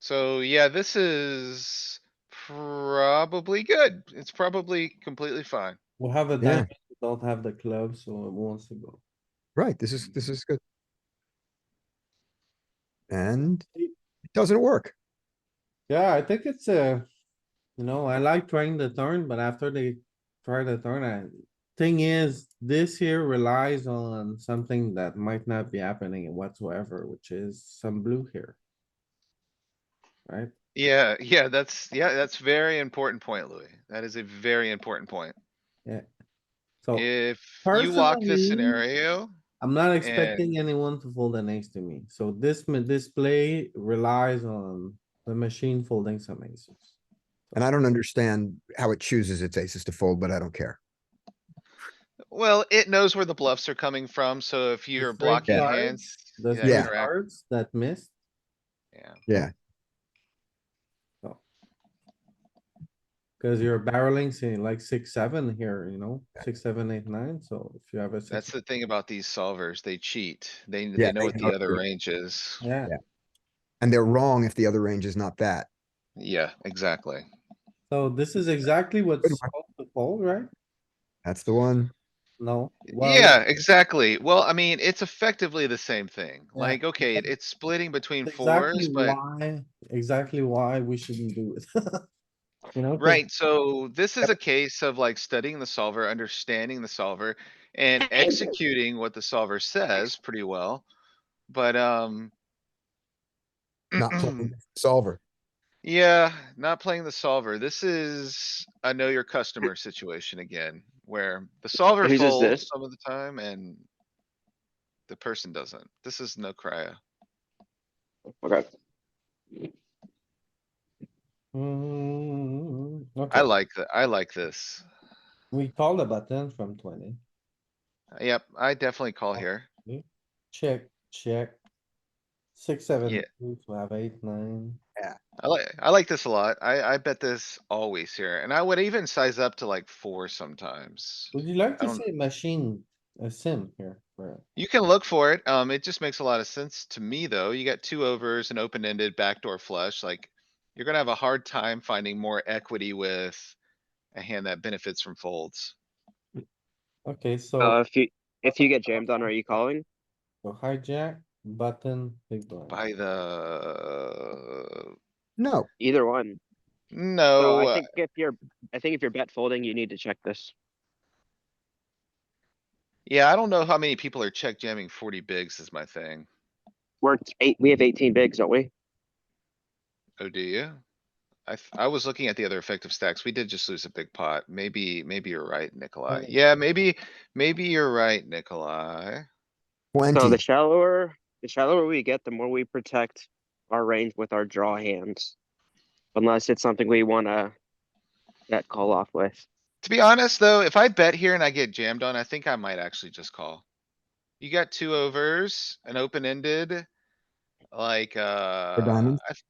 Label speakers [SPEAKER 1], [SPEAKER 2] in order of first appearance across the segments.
[SPEAKER 1] So yeah, this is probably good. It's probably completely fine.
[SPEAKER 2] We'll have a
[SPEAKER 3] Yeah.
[SPEAKER 2] diamond, we don't have the club, so it wants to go.
[SPEAKER 3] Right, this is, this is good. And
[SPEAKER 2] It-
[SPEAKER 3] it doesn't work.
[SPEAKER 2] Yeah, I think it's a, you know, I like trying the turn, but after they try the turn, I, thing is, this here relies on something that might not be happening whatsoever, which is some blue here. Right?
[SPEAKER 1] Yeah, yeah, that's, yeah, that's very important point, Louis. That is a very important point.
[SPEAKER 2] So
[SPEAKER 1] If you walk this
[SPEAKER 2] Oh, personally,
[SPEAKER 1] scenario,
[SPEAKER 2] I'm not expecting anyone to fold an ace to me. So this, ma- this play relies on the machine folding some aces.
[SPEAKER 3] And I don't understand how it chooses its aces to fold, but I don't care.
[SPEAKER 1] well, it knows where the bluffs are coming from, so if you're
[SPEAKER 2] straight
[SPEAKER 1] blocking
[SPEAKER 2] cards,
[SPEAKER 1] hands.
[SPEAKER 2] The
[SPEAKER 1] yeah,
[SPEAKER 2] three
[SPEAKER 1] correct,
[SPEAKER 2] cards that missed,
[SPEAKER 1] Yeah.
[SPEAKER 2] cause you're barreling, say, like six, seven here, you know, six, seven, eight, nine, so if you have a
[SPEAKER 1] That's
[SPEAKER 2] six,
[SPEAKER 1] the thing about these solvers, they cheat. They, they
[SPEAKER 3] Yeah,
[SPEAKER 1] know
[SPEAKER 3] they
[SPEAKER 1] what the
[SPEAKER 3] know
[SPEAKER 1] other
[SPEAKER 3] too.
[SPEAKER 1] range is.
[SPEAKER 2] yeah,
[SPEAKER 3] And they're wrong if the other range is not that.
[SPEAKER 1] Yeah, exactly.
[SPEAKER 2] so this is exactly what's
[SPEAKER 3] Good
[SPEAKER 2] supposed to fold, right?
[SPEAKER 3] That's the one.
[SPEAKER 2] No? Well,
[SPEAKER 1] Yeah, exactly. Well, I mean, it's effectively the same thing.
[SPEAKER 2] Yeah.
[SPEAKER 1] Like, okay, it- it's splitting between
[SPEAKER 2] Exactly
[SPEAKER 1] fours, but,
[SPEAKER 2] why, exactly why we shouldn't do it. You know? 'cause
[SPEAKER 1] right, so this is a case of like studying the solver, understanding the solver. And executing what the solver says pretty well, but, um.
[SPEAKER 3] Not playing the solver.
[SPEAKER 1] Yeah, not playing the solver. This is a know your customer situation again, where the solver
[SPEAKER 4] Whose is
[SPEAKER 1] folds
[SPEAKER 4] this?
[SPEAKER 1] some of the time and. The person doesn't. This is no cryo.
[SPEAKER 4] Okay,
[SPEAKER 2] Mm,
[SPEAKER 1] I
[SPEAKER 2] okay,
[SPEAKER 1] like that. I like this.
[SPEAKER 2] we call the button from twenty,
[SPEAKER 1] Yep, I definitely call
[SPEAKER 4] Oh.
[SPEAKER 1] here.
[SPEAKER 2] check, check. Six, seven,
[SPEAKER 1] Yeah.
[SPEAKER 2] eight, we have eight, nine.
[SPEAKER 1] I like, I like this a lot. I, I bet this always here and I would even size up to like four sometimes.
[SPEAKER 2] Would you like
[SPEAKER 1] I
[SPEAKER 2] to
[SPEAKER 1] don't-
[SPEAKER 2] say machine, a sim here, for
[SPEAKER 1] You can look for it. Um, it just makes a lot of sense to me, though. You got two overs, an open-ended backdoor flush, like. You're gonna have a hard time finding more equity with a hand that benefits from folds.
[SPEAKER 2] Okay,
[SPEAKER 4] uh,
[SPEAKER 2] so
[SPEAKER 4] if you, if you get jammed on, are you calling?
[SPEAKER 2] so hijack, button, big blind.
[SPEAKER 1] By the.
[SPEAKER 3] No,
[SPEAKER 4] Either one. So
[SPEAKER 1] No,
[SPEAKER 4] I
[SPEAKER 1] uh,
[SPEAKER 4] think if you're, I think if you're bet folding, you need to check this.
[SPEAKER 1] yeah, I don't know how many people are check jamming forty bigs is my thing.
[SPEAKER 4] We're eight, we have eighteen bigs, don't we?
[SPEAKER 1] Oh, do you? I, th- I was looking at the other effective stacks. We did just lose a big pot. Maybe, maybe you're right, Nikolai.
[SPEAKER 2] Okay.
[SPEAKER 1] Yeah, maybe, maybe you're right, Nikolai.
[SPEAKER 4] So the
[SPEAKER 3] plenty.
[SPEAKER 4] shallower, the shallower we get, the more we protect our range with our draw hands. Unless it's something we wanna bet call off with.
[SPEAKER 1] To be honest, though, if I bet here and I get jammed on, I think I might actually just call. You got two overs, an open ended. Like, uh.
[SPEAKER 3] diamonds?
[SPEAKER 1] I th-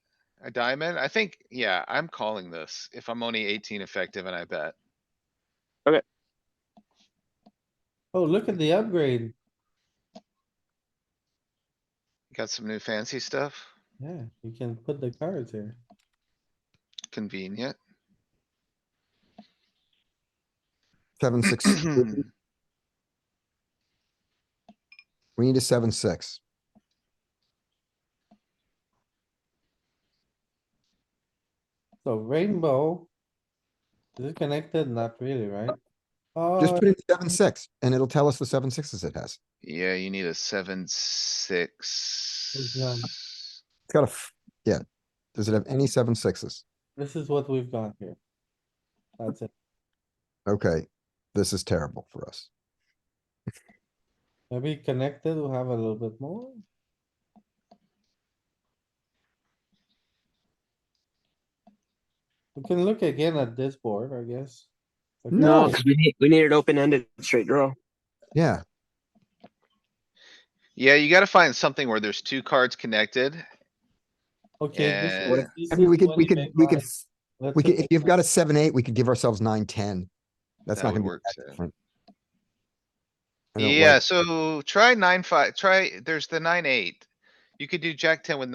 [SPEAKER 1] A diamond. I think, yeah, I'm calling this if I'm only eighteen effective and I bet.
[SPEAKER 2] Oh, look at the upgrade,
[SPEAKER 1] Got some new fancy stuff.
[SPEAKER 2] yeah, you can put the cards here.
[SPEAKER 1] Convenient.
[SPEAKER 3] Seven, six. We need a seven, six.
[SPEAKER 2] So rainbow. Is it connected? Not really, right?
[SPEAKER 3] Just
[SPEAKER 2] Oh,
[SPEAKER 3] put in seven, six and it'll tell us the seven sixes it has.
[SPEAKER 1] Yeah, you need a seven, six.
[SPEAKER 3] It's got a, f- yeah. Does it have any seven sixes?
[SPEAKER 2] this is what we've got here. That's it.
[SPEAKER 3] Okay, this is terrible for us.
[SPEAKER 2] Maybe connected, we'll have a little bit more. We can look again at this board, I guess. Okay.
[SPEAKER 3] No.
[SPEAKER 4] cause we need, we need an open-ended straight draw.
[SPEAKER 3] Yeah,
[SPEAKER 1] Yeah, you gotta find something where there's two cards connected.
[SPEAKER 2] Okay. this
[SPEAKER 1] Yeah.
[SPEAKER 2] is-
[SPEAKER 1] What if-
[SPEAKER 2] this
[SPEAKER 3] I mean,
[SPEAKER 2] is
[SPEAKER 3] we could,
[SPEAKER 2] what
[SPEAKER 3] we
[SPEAKER 2] you
[SPEAKER 3] could,
[SPEAKER 2] make
[SPEAKER 3] we could,
[SPEAKER 2] by- let's
[SPEAKER 3] we
[SPEAKER 2] say
[SPEAKER 3] could, if you've got a seven, eight, we could give ourselves nine, ten. That's
[SPEAKER 1] That
[SPEAKER 3] not
[SPEAKER 1] would
[SPEAKER 3] gonna be
[SPEAKER 1] work
[SPEAKER 3] that
[SPEAKER 1] too.
[SPEAKER 3] different. I don't like-
[SPEAKER 1] Yeah, so try nine, five, try, there's the nine, eight. You could do jack ten with